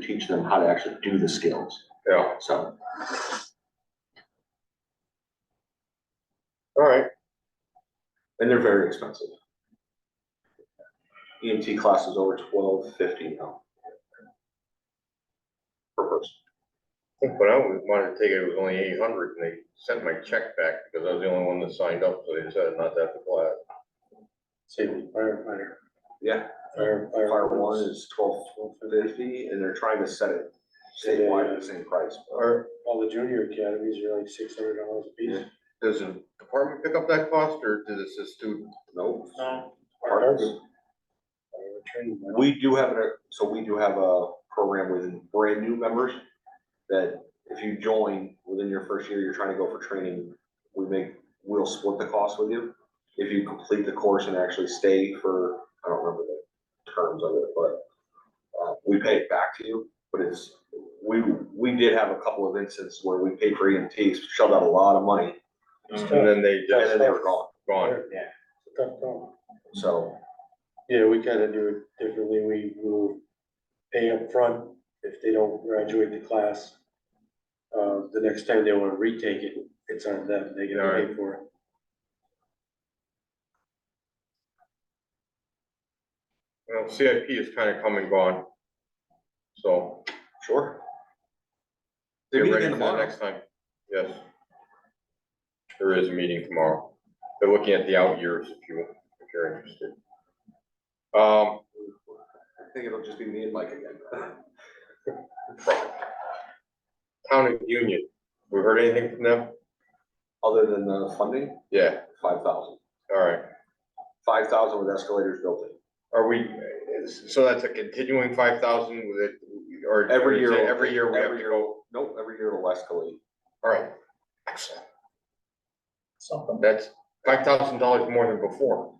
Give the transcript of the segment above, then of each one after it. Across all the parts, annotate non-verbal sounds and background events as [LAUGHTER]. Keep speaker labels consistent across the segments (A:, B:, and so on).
A: teach them how to actually do the skills,
B: Yeah,
A: so.
B: all right. And they're very expensive. E EMT class is over twelve fifty now. Per person.
C: I think when I was- wanted to take it, it was only eight hundred, and they sent my check back because I was the only one that signed up, so they decided not to have the class.
D: Same firefighter.
B: Yeah,
D: Fire-
B: fire one is twelve fifty, and they're trying to set it statewide at the same price.
D: Or all the junior academies are like six hundred dollars a piece.
C: Does the department pick up that cost, or does it just student?
B: Nope.
D: Fireworks. Firework training, man.
B: We do have, a so we do have a program with brand new members that if you join within your first year, you're trying to go for training, we make, we'll split the cost with you. If you complete the course and actually stay for, I don't remember the terms of it, but uh, we pay it back to you, but it's, we, we did have a couple of instances where we paid for EMTs, shoved out a lot of money,
C: And then they
B: and then
C: just
B: they were gone.
C: gone.
D: Yeah. It's a tough call.
B: So,
D: Yeah, we kind of do it differently. We will pay up front if they don't graduate the class. Uh, the next time they want to retake it, it's on them. They get to pay for it.
C: You know, CIP is kind of come and gone. So
B: sure. They're
C: get
B: meeting
C: ready for that
B: tomorrow.
C: next time. Yes. There is a meeting tomorrow. They're looking at the out years if you, if you're interested. Um,
B: I think it'll just be me and Mike again.
C: town of Union, we heard anything from them?
B: Other than the funding,
C: Yeah,
B: five thousand.
C: all right.
B: five thousand with escalators built in.
C: Are we, so that's a continuing five thousand with it, or?
B: Every year.
C: Every year we have
B: Every
C: to
B: year.
C: go,
B: Nope, every year it'll escalate.
C: all right, excellent. Something. That's five thousand dollars more than before.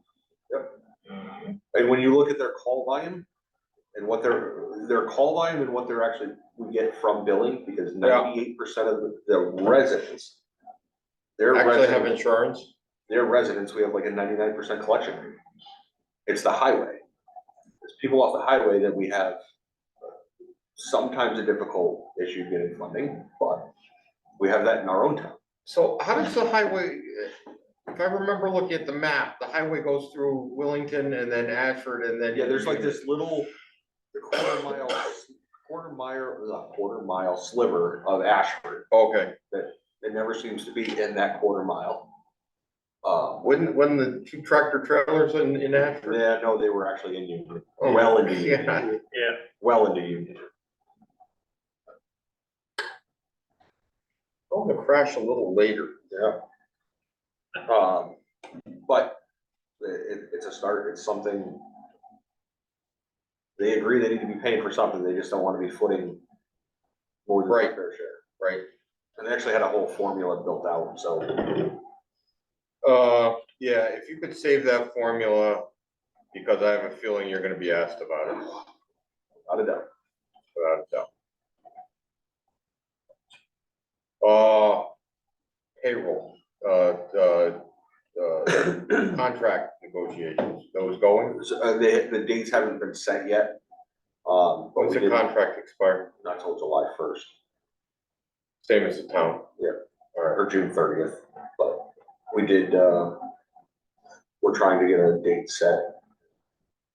B: And when you look at their call volume and what their, their call volume and what they're actually, we get from billing, because
C: Yeah.
B: ninety-eight percent of the- the residents, their
C: Actually have
B: residents,
C: insurance,
B: their residents, we have like a ninety-nine percent collection rate. It's the highway. It's people off the highway that we have sometimes a difficult issue getting funding, but we have that in our own town.
C: so how does the highway, if I remember looking at the map, the highway goes through Willington and then Ashford and then.
B: Yeah, there's like this little quarter mile, quarter mile, uh, quarter mile sliver of Ashford
C: Okay,
B: that never seems to be in that quarter mile. Uh,
C: wouldn't, wouldn't the two tractor trailers in, in Ashford? Oh.
B: yeah, no, they were actually in Union, well into Union,
C: Yeah,
B: well into Union.
C: I'm gonna crash a little later.
B: Yeah. Um, but it, it's a start, it's something. They agree they need to be paying for something, they just don't wanna be footing more than their
C: Right.
B: fair share.
C: Right.
B: And they actually had a whole formula built out, so.
C: Uh, yeah, if you could save that formula, because I have a feeling you're gonna be asked about it,
B: Out of doubt.
C: without a doubt. Uh, payroll, uh, uh,
B: [CLEARS THROAT]
C: uh, contract negotiations, those going,
B: So, uh, the, the dates haven't been set yet. Um, but
C: when's
B: we
C: the
B: did not
C: contract expire?
B: till July first
C: Same as the town.
B: Yeah.
C: All right,
B: or June thirtieth, but we did, uh, we're trying to get a date set.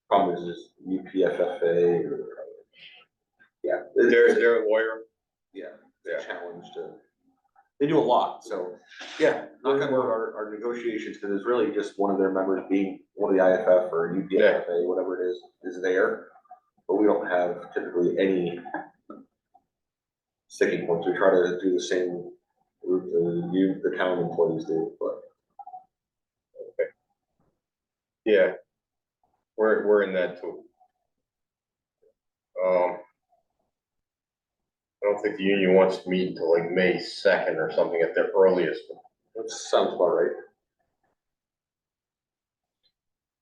B: Problem is, is UPFFA or. Yeah. it-
C: they're, they're a lawyer,
B: Yeah,
C: Yeah.
B: challenge to, they do a lot, so, yeah, knock on wood, our, our negotiations, because it's really just one of their members being one of the IFF or UPFA, whatever it is, is there. But we don't have typically any sticking points, we try to do the same route the, you, the town employees do, but
C: yeah. We're, we're in that too. Um. I don't think the union wants to meet until like May second or something at their earliest,
B: that sounds about right.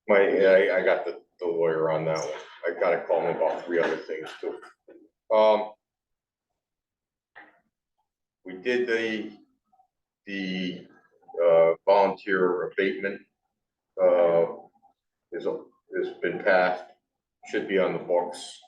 C: My, I, I got the, the lawyer on that one. I gotta call him about three other things too. Um. We did the, the, uh, volunteer abatement. Uh, is, is been passed, should be on the books.